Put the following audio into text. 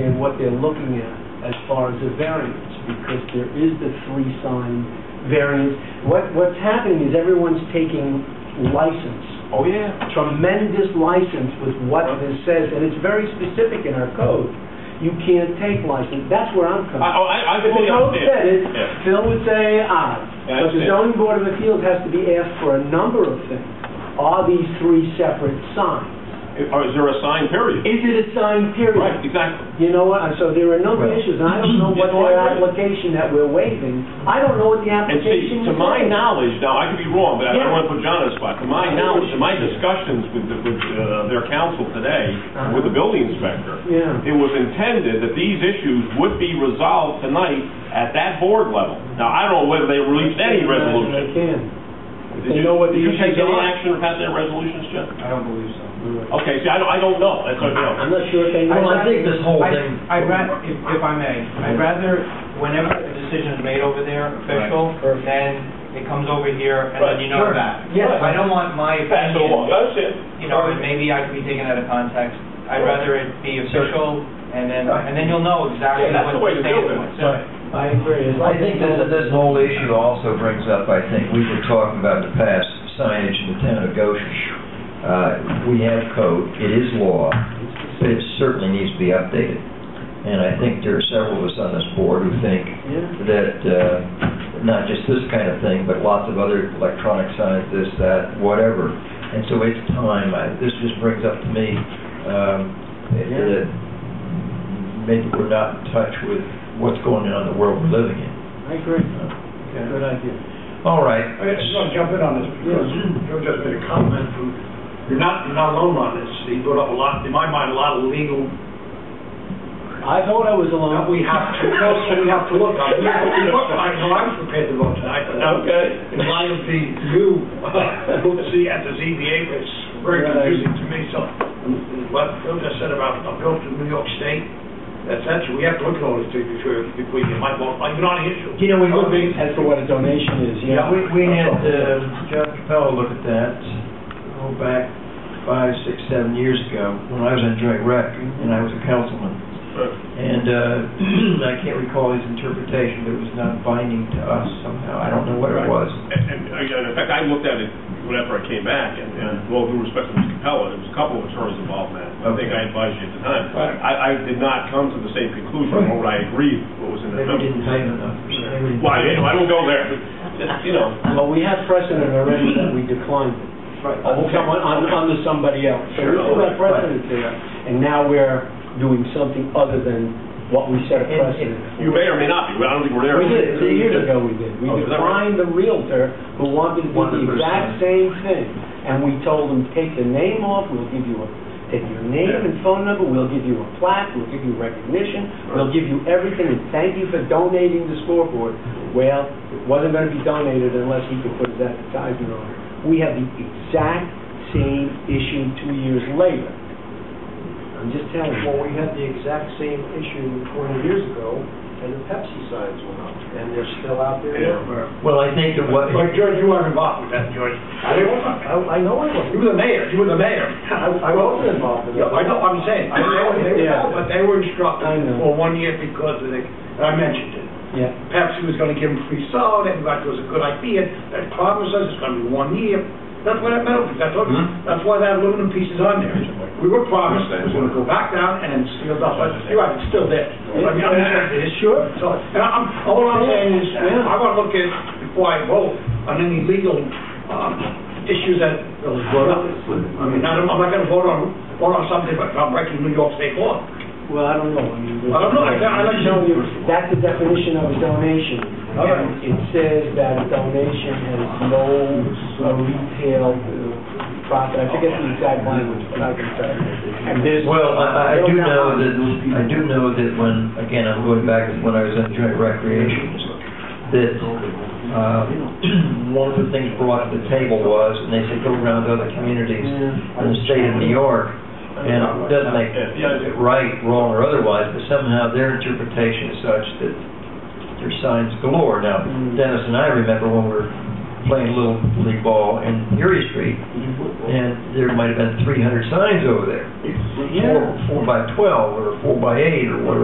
what they're looking at as far as a variance, because there is the three-sign variance. What, what's happening is everyone's taking license, Oh, yeah. tremendous license with what this says, and it's very specific in our code. You can't take license, that's where I'm I, oh, coming from. I, I If the fully code said understand. it, Yeah. Phil would say aye. Yeah, But I the understand. zoning board of appeals has to be asked for a number of things. Are these three separate signs? Or is there a sign period? Is it a sign Right, period? exactly. You know what, so there are a number of issues, and I don't know what It's all their right. application that we're waiving, I don't know what the And see, application is. to my knowledge, now, I could be wrong, but I Yeah. don't want to put John on the spot. To my knowledge, in my discussions with, the- with uh, their counsel today, with the building inspector, Uh-huh. Yeah. it was intended that these issues would be resolved tonight at that board level. Now, I don't know whether they released I any resolution. can. Did They you, know what did the you take issues any are. action about their resolutions, John? I don't believe so. Okay, see, I don't, I don't know. That's what I I- I'm not sure if they know. Well, I think this whole I- thing- I'd rather, if if I may, I'd rather, whenever a decision is made over there official, then it comes over here, and then you know Right. that. Yes. I don't want my That's the law. opinion, That's it. you know, and maybe I could be taken out of context. I'd rather it be official, and then, and then you'll know exactly Yeah, that's what the way to the do stand it. was. I agree. It's I like- think that this whole issue also brings up, I think, we were talking about in the past signage in the town of Goshen. Uh, We have code, it is law, but it certainly needs to be updated. And I think there are several of us on this board who think Yeah. that uh, not just this kind of thing, but lots of other electronic signs, this, that, whatever. And so it's time, I- this just brings up to me um, that maybe we're not in touch with what's going on in the world we're living in. I agree. Good idea. All right. I just want to jump in on this because Joe just made a comment who, you're not, you're not alone on this. He brought up a lot, in my mind, a lot of legal, I thought I was alone. that we have to, that we have to look at. We have to look. I know I was prepared to vote tonight, but now, Okay. in light of the new, both C and the ZBA, it's very confusing to me, so. What Joe just said about a bill to New York State, that's actually, we have to look at all these things before, before you might vote, like, you're not an issue. You know, we would be, as for what a donation is, yeah. Yeah, we, we had, uh, John Capello look at that, oh, back five, six, seven years ago, when I was in joint rec, and I was a councilman. And, uh, I can't recall his interpretation, but it was not binding to us somehow, I don't know what it was. And, and, again, in fact, I looked at it whenever I came back, and, and Mm-hmm. well, due respect to Mr. Capella, there was a couple of attorneys involved in that. I think I advised you at the time. Right. I, I did not come to the same conclusion, Right. nor would I agree with what was in that Maybe we memo. didn't pay him enough, or something. Maybe we didn't- Well, I, I don't go there, but, just, you know, Well, we have precedent already that we declined it. Right. On Okay. someone, on, onto somebody else. So we Sure. still have Right. precedent there, and now we're doing something other than what we set a And- precedent for. you may or may not be, I don't think we're there. We did, three years ago we did. We Oh, is that right? declined the Realtor who wanted to do the Wanted to exact same thing, and we told him, take the name off, we'll give you a, take your name Yeah. and phone number, we'll give you a plaque, we'll give you recognition, we'll give you everything, and thank you for donating the scoreboard. Well, it wasn't gonna be donated unless he could put his advertisement on it. We have the exact same issue two years later. I'm just telling you. Well, we had the exact same issue 20 years ago, and the Pepsi signs went up, and they're still out there now. Well, I think that what, But George, you weren't involved with that, George. I I I know I You wasn't. were the mayor, you were the mayor. I I wasn't involved in Yeah, that. I know, I'm saying, I know, they were, Yeah. but they were instructed I know. for one year because of the, and I mentioned it. Yeah. Pepsi was gonna give them free soda, everybody was a good idea, that promised us it's gonna be one year. That's why that metal, piece, I told you, Hmm. that's why that aluminum piece is on there. We were promised it was gonna go back down and sealed up, but you're right, it's still there. I mean, I'm saying it is sure, so, and I'm, all I'm saying is, Yeah. I wanna look at, before I vote, on any legal, um, issues that was brought up. I mean, I don't, I'm not gonna vote on, vote on something, but I'm breaking New York state law. Well, I don't know. I mean, I don't know. I can't- I don't know. That's the definition of a donation. All right. And It says that a donation has no uh, retail uh, profit. I forget the exact language, but I can tell you. And there's- Well, I, I- I do know that, I do know that when, again, I'm going back to when I was in joint recreation, that, uh, one of the things brought to the table was, and they said, go around to other communities in the state of New York, and it doesn't make it right, wrong, or otherwise, but somehow their interpretation is such that there's signs galore. Now, Dennis and I remember when we were playing little league ball in Erie Street, and there might have been 300 signs over there Yeah. four, four by twelve, or four by eight, or whatever